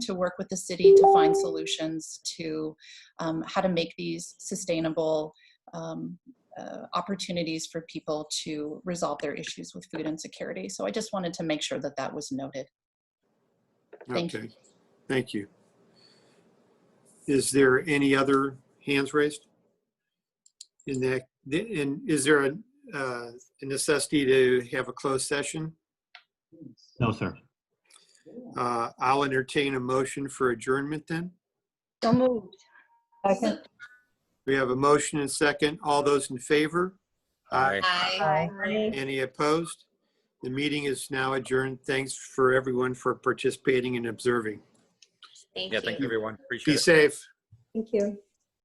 to work with the city to find solutions to um, how to make these sustainable um, uh, opportunities for people to resolve their issues with food insecurity. So I just wanted to make sure that that was noted. Thank you. Okay, thank you. Is there any other hands raised? In that, and is there a uh, a necessity to have a closed session? No, sir. Uh, I'll entertain a motion for adjournment then. So moved. Second. We have a motion and second. All those in favor? Uh, Aye. Any opposed? The meeting is now adjourned. Thanks for everyone for participating and observing. Yeah, thank you, everyone. Appreciate Be it. safe. Thank you.